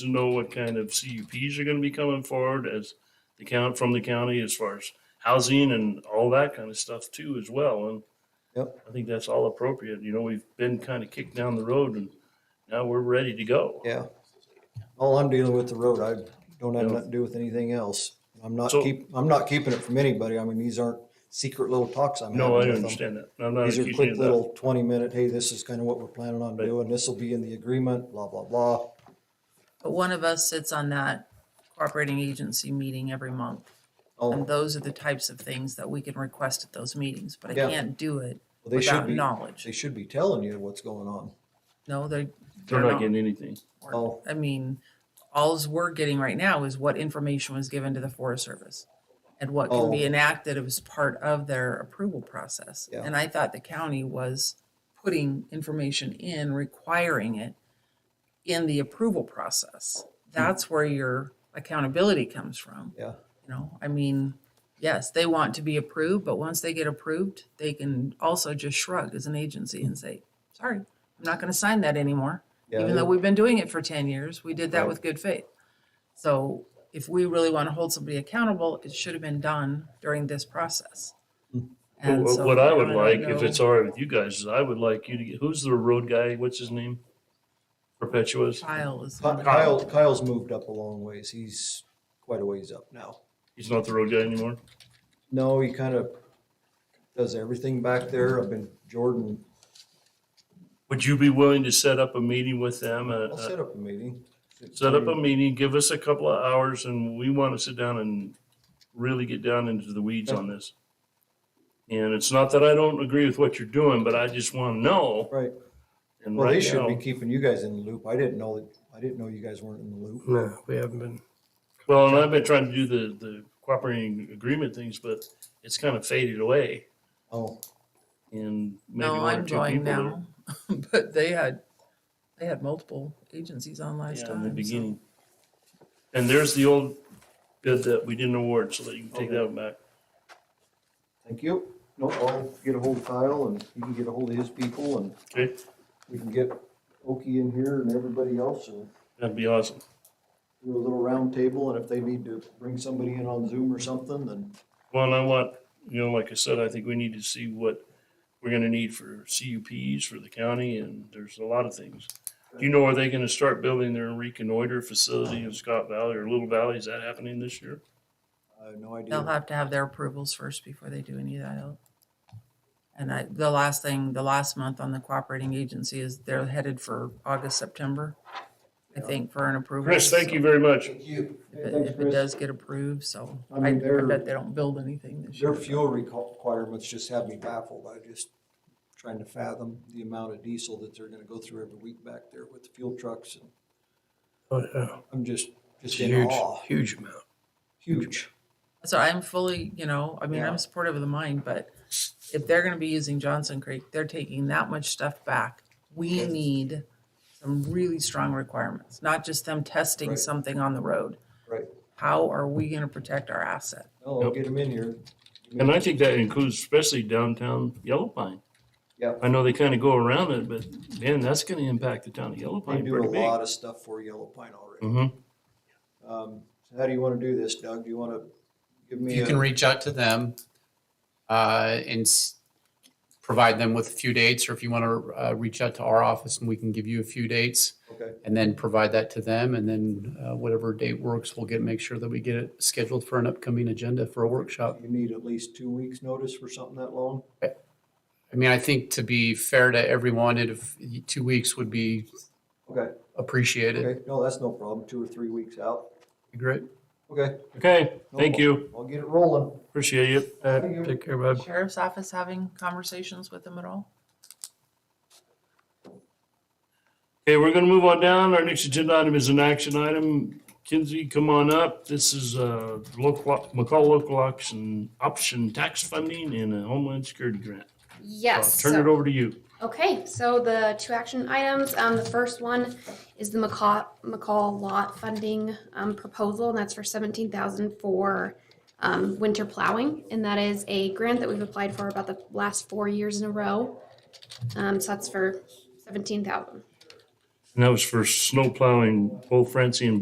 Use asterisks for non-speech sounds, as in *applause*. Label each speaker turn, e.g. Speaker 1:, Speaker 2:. Speaker 1: to know what kind of CUPs are gonna be coming forward as the count from the county as far as housing and all that kind of stuff too as well. And
Speaker 2: Yep.
Speaker 1: I think that's all appropriate. You know, we've been kind of kicked down the road and now we're ready to go.
Speaker 2: Yeah. All I'm dealing with the road, I don't have nothing to do with anything else. I'm not
Speaker 1: So-
Speaker 2: keep, I'm not keeping it from anybody. I mean, these aren't secret little talks I'm having
Speaker 1: No,
Speaker 2: with
Speaker 1: I
Speaker 2: them.
Speaker 1: understand that. I'm not
Speaker 2: These are
Speaker 1: accusing you
Speaker 2: quick
Speaker 1: of that.
Speaker 2: little twenty minute, hey, this is kind of what we're planning on
Speaker 1: Right.
Speaker 2: doing. This will be in the agreement, blah, blah, blah.
Speaker 3: But one of us sits on that cooperating agency meeting every month. And
Speaker 2: Oh,
Speaker 3: those are the types of things that we can request at those meetings, but I
Speaker 2: Yeah.
Speaker 3: can't do it
Speaker 2: well, they should
Speaker 3: without
Speaker 2: be,
Speaker 3: knowledge.
Speaker 2: they should be telling you what's going on.
Speaker 3: No, they're,
Speaker 1: They're not getting anything.
Speaker 3: or-
Speaker 2: Oh.
Speaker 3: I mean, alls we're getting right now is what information was given to the Forest Service and what can be
Speaker 2: Oh.
Speaker 3: enacted as part of their approval process.
Speaker 2: Yeah.
Speaker 3: And I thought the county was putting information in, requiring it in the approval process.
Speaker 2: Hmm.
Speaker 3: That's where your accountability comes from.
Speaker 2: Yeah.
Speaker 3: You know, I mean, yes, they want to be approved, but once they get approved, they can also just shrug as an agency and say, sorry, I'm not gonna sign that anymore.
Speaker 2: Yeah,
Speaker 3: Even
Speaker 2: they're-
Speaker 3: though we've been doing it for ten years, we did that
Speaker 2: Right.
Speaker 3: with good faith. So if we really wanna hold somebody accountable, it should have been done during this process.
Speaker 2: Hmm.
Speaker 1: Well,
Speaker 3: And so
Speaker 1: What what I would
Speaker 3: don't
Speaker 1: like, if
Speaker 3: know-
Speaker 1: it's all right with you guys, is I would like you to get, who's the road guy? What's his name? Perpetua's.
Speaker 3: Kyle is.
Speaker 2: Ky- Kyle, Kyle's moved up a long ways. He's quite a ways up now.
Speaker 1: He's not the road guy anymore.
Speaker 2: No, he kind of does everything back there. I've been, Jordan,
Speaker 1: Would you be willing to set up a meeting with them? uh,
Speaker 2: I'll
Speaker 1: uh,
Speaker 2: set up a meeting.
Speaker 1: Set up a meeting, give us a couple of hours and we want to sit down and really get down into the weeds on this. And it's not that I don't agree with what you're doing, but I just want to know.
Speaker 2: Right.
Speaker 1: And
Speaker 2: Well, they
Speaker 1: right
Speaker 2: should be
Speaker 1: now,
Speaker 2: keeping you guys in the loop. I didn't know that, I didn't know you guys weren't in the
Speaker 1: Hmm.
Speaker 2: loop.
Speaker 4: No, we haven't been.
Speaker 1: well, and I've been trying to do the, the cooperating agreement things, but it's kind of faded away.
Speaker 2: Oh,
Speaker 1: And maybe one
Speaker 3: No,
Speaker 1: or
Speaker 3: I'm
Speaker 1: two
Speaker 3: joined
Speaker 1: people. that-
Speaker 3: now, *laughs* but they had, they had multiple agencies on last
Speaker 1: Yeah,
Speaker 3: time.
Speaker 1: in the
Speaker 3: so-
Speaker 1: beginning. And there's the old bid that we didn't award, so that you can take
Speaker 2: Okay.
Speaker 1: that one back.
Speaker 2: thank you. No, I'll get a hold of Kyle and you can get a hold of his people and
Speaker 1: Okay,
Speaker 2: we can get Oki in here and everybody else and
Speaker 1: that'd be awesome.
Speaker 2: do a little round table. And if they need to bring somebody in on Zoom or something, then
Speaker 1: Well, and I want, you know, like I said, I think we need to see what we're gonna need for CUPs for the county, and there's a lot of things. Do you know, are they gonna start building their reconnoiter facility in Scott Valley or Little Valley? Is that happening this year?
Speaker 2: I have no
Speaker 3: They'll
Speaker 2: idea.
Speaker 3: have to have their approvals first before they do any of that. else. And I, the last thing, the last month on the cooperating agency is they're headed for August, September, I think, for an approval.
Speaker 1: Chris, thank
Speaker 3: so
Speaker 1: you very much.
Speaker 2: you.
Speaker 3: If it, if it does get approved, so
Speaker 2: I mean,
Speaker 3: I, I
Speaker 2: they're-
Speaker 3: bet they don't build anything this year.
Speaker 2: Their fuel reco- requirements just have me baffled. I just trying to fathom the amount of diesel that they're gonna go through every week back there with the fuel trucks. and
Speaker 4: Oh, yeah.
Speaker 2: I'm just, just
Speaker 4: It's a
Speaker 2: in
Speaker 4: huge,
Speaker 2: awe.
Speaker 4: huge amount.
Speaker 2: Huge.
Speaker 3: So I'm fully, you know, I mean,
Speaker 2: Yeah.
Speaker 3: I'm supportive of the mine, but if they're gonna be using Johnson Creek, they're taking that much stuff back. We need some really strong requirements, not just them testing
Speaker 2: Right.
Speaker 3: something on the road.
Speaker 2: Right.
Speaker 3: How are we gonna protect our asset?
Speaker 2: Oh, I'll get them in here.
Speaker 1: And I think that includes especially downtown Yellow Pine.
Speaker 2: Yep.
Speaker 1: I know they kinda go around it, but man, that's gonna impact the town of Yellow
Speaker 2: They
Speaker 1: Pine
Speaker 2: do a
Speaker 1: pretty big.
Speaker 2: lot of stuff for Yellow Pine already.
Speaker 1: hmm
Speaker 2: Um, so how do you wanna do this, Doug? Do you wanna give me
Speaker 5: you can
Speaker 2: a,
Speaker 5: reach out to them uh, and s- provide them with a few dates, or if you want to uh, reach out to our office and we can give you a few dates
Speaker 2: okay,
Speaker 5: and then provide that to them. And then uh, whatever date works, we'll get make sure that we get it scheduled for an upcoming agenda for a workshop.
Speaker 2: you need at least two weeks' notice for something that long?
Speaker 5: I mean, I think to be fair to everyone, it if two weeks would be
Speaker 2: Okay,
Speaker 5: appreciated.
Speaker 2: okay, no, that's no problem. Two or three weeks out.
Speaker 5: Great.
Speaker 2: Okay.
Speaker 1: Okay,
Speaker 2: no
Speaker 1: thank
Speaker 2: problem.
Speaker 1: you.
Speaker 2: I'll get it rolling.
Speaker 1: Appreciate you.
Speaker 4: Uh,
Speaker 2: Thank you.
Speaker 4: Take care, bud.
Speaker 3: Sheriff's office having conversations with them at all?
Speaker 1: Okay, we're gonna move on down. Our next agenda item is an action item. Kinsey, come on up. This is, uh, local, McCall local option, option tax funding and a homeland security grant. I'll
Speaker 6: Yes.
Speaker 1: Turn
Speaker 6: so-
Speaker 1: it over to you.
Speaker 6: Okay, so the two action items, um, the first one is the McCall, McCall lot funding, um, proposal, and that's for seventeen thousand for, um, winter plowing, and that is a grant that we've applied for about the last four years in a row. Um, so that's for seventeen thousand.
Speaker 1: And that was for snow plowing, both Francie and